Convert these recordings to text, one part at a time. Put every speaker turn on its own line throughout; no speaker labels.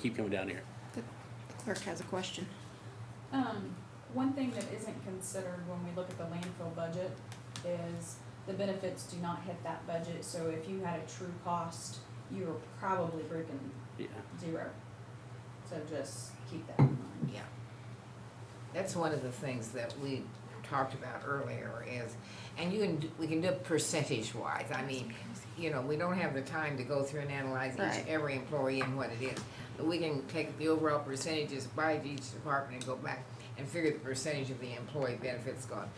Keep coming down here.
The clerk has a question.
Um, one thing that isn't considered when we look at the landfill budget is the benefits do not hit that budget, so if you had a true cost, you were probably breaking
Yeah.
zero. So just keep that in mind.
Yeah. That's one of the things that we talked about earlier is, and you can, do- we can do it percentage wise. I mean, you know, we don't have the time to go through and analyze each,
Right.
every employee and what it is. But we can take the overall percentages by each department and go back and figure the percentage of the employee benefits gone.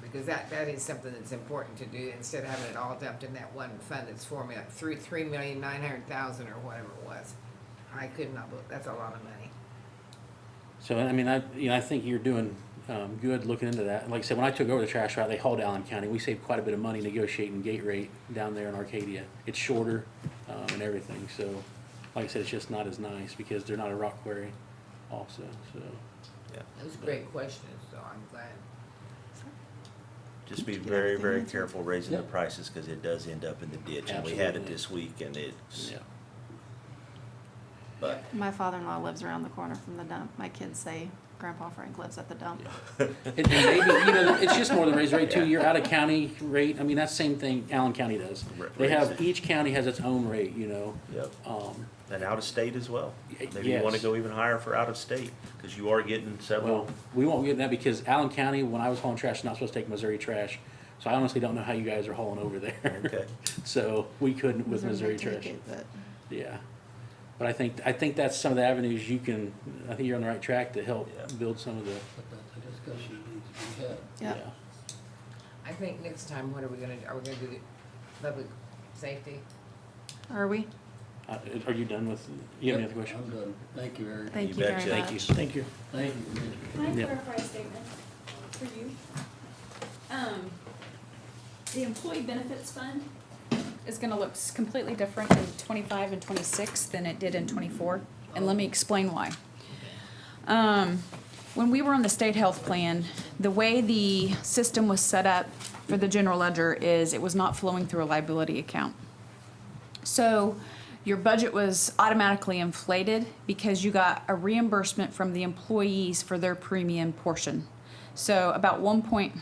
Because that, that is something that's important to do instead of having it all dumped in that one fund that's four million, three, three million nine hundred thousand or whatever it was. I could not, bel- that's a lot of money.
So, I mean, I, you know, I think you're doing, um, good looking into that. Like I said, when I took over the trash route, they hauled Allen County. We saved quite a bit of money negotiating gate rate down there in Arcadia. It's shorter, um, and everything, so, like I said, it's just not as nice because they're not a rock quarry also, so.
Those are great questions, so I'm glad.
Just be very, very
Everything.
careful raising the
Yep.
prices, cause it does end up in the ditch, and we had it
Absolutely.
this week, and it's,
Yeah,
but,
My father-in-law lives around the corner from the dump. My kids say Grandpa Frank lives at the dump.
and and maybe, you know, it's just more than raise rate too, you're out of county rate, I mean, that's same thing Allen County does.
Ra-
They
raise
have,
it.
each county has its own rate, you know,
yep,
um,
and out of state as well.
Y-
Maybe you wanna
yes.
go even higher for out of state, cause you are getting
Well,
several,
we won't get that because Allen County, when I was hauling trash, not supposed to take Missouri trash. So I honestly don't know how you guys are hauling over there.
okay,
So we couldn't with Missouri
Take
trash.
it, but
Yeah. But I think, I think that's some of the avenues you can, I think you're on the right track to help
Yeah.
build some of the,
But that's a discussion needs to be had.
yeah.
Yeah,
I think next time, what are we gonna, do? are we gonna do the public safety?
are we?
Uh, Are you done with, you have any other
Yep,
question?
I'm done. Thank you, Eric.
Thank
You
you very much.
betcha.
Thank you. Thank you.
Thank you, Mr.
Can I
Yeah.
clarify a statement for you? Um, the employee benefits fund is gonna look s- completely different in twenty-five and twenty-six than it did in twenty-four, and let me explain why. Um, when we were on the state health plan, the way the system was set up for the general ledger is it was not flowing through a liability account. So your budget was automatically inflated because you got a reimbursement from the employees for their premium portion. So about one point,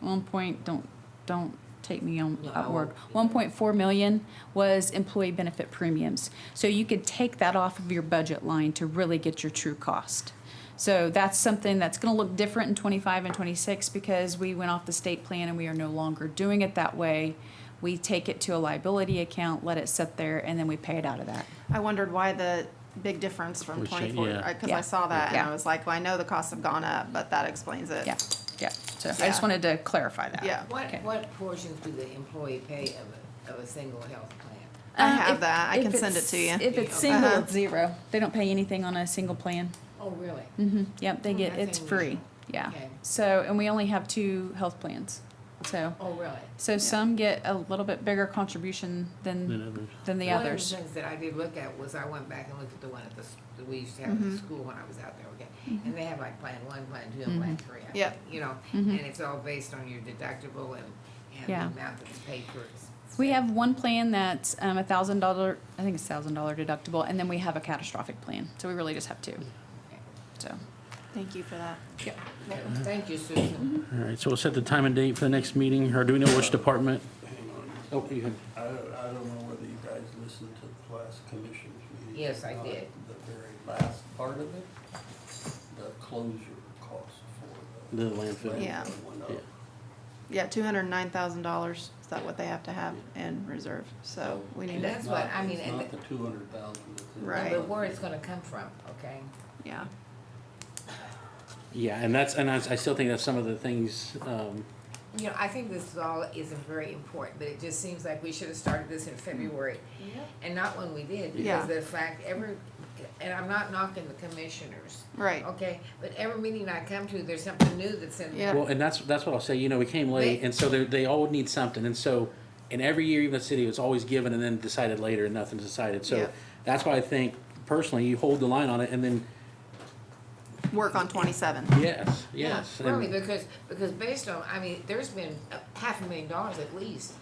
one point, don't, don't take me on
No, I
that word. One
won't.
point four million was employee benefit premiums. So you could take that off of your budget line to really get your true cost. So that's something that's gonna look different in twenty-five and twenty-six because we went off the state plan and we are no longer doing it that way. We take it to a liability account, let it sit there, and then we pay it out of that.
I wondered why the big difference from
We should-
twenty-four,
yeah.
because
Yeah.
I saw that and
Yeah.
I was like, well, I know the costs have gone up, but that explains it.
Yeah, yeah. So I just
Uh, Yeah.
wanted to clarify that.
Yeah.
What,
Okay.
what portions do the employee pay of a, of a single health plan?
I
Um,
have
if-
that. I
if
can send it
it's-
to you.
If it's single,
Uh-huh.
it's zero. They don't pay anything on a single plan.
Oh, really?
Mm-hmm, yep, they
Hmm,
get,
that's
it's
unusual.
free, yeah.
Okay.
So, and we only have two health plans, so,
Oh, really?
so some get a little bit bigger contribution
Then
than,
others.
than the others.
One of the things that I did look at was I went back and looked at the one at the, s- that we used to have at
Mm-hmm.
the school when I was out there, okay? And they have like plan one, plan two, and plan
Mm-hmm.
three. I
Yep.
think, You know, and
Mhm.
it's all based on your deductible and, and
Yeah.
the amount that's paid for.
We have one plan that's, um, a thousand dollar, I think it's thousand dollar deductible, and then we have a catastrophic plan, so we really just have two, so.
Thank you for that.
Yep.
Okay. Thank you,
Mm-hmm.
Susan.
All right, so we'll set the time and date for the next meeting, or do we know which department?
Hang on.
Uh, Oh, you,
I don't, I don't know whether you guys listened to the last commission's meeting.
Yes, I
or not,
did.
The very last part of it, the closure cost for the.
The landfill.
Yeah.
landfill went up.
Yeah.
Yeah, two hundred and nine thousand dollars, is that what they have to have in reserve? So we need to,
That's what I mean,
It's
and
not
the-
the two hundred thousand.
Right.
But where it's gonna come from, okay?
yeah.
Yeah, and that's, and I, I still think that's some of the things, um,
You know, I think this is all isn't very important, but it just seems like we should have started this in February. And not when we did,
Yeah.
because the fact every, and I'm not knocking the commissioners,
Right,
okay? But every meeting I come to, there's something new that's in there.
Yeah.
Well, and that's, that's what I'll say, you know, we came late, and so they, they all need something, and so, and every year, even the city, it's always given and then decided later, and nothing's decided,
Yeah.
so that's why I think, personally, you hold the line on it, and then,
work on twenty-seven.
yes, yes. and-
Really, because, because based on, I mean, there's been a half a million dollars at least,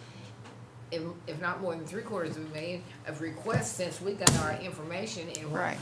if, if not more than three quarters of a million of requests since we got our information and.
Right.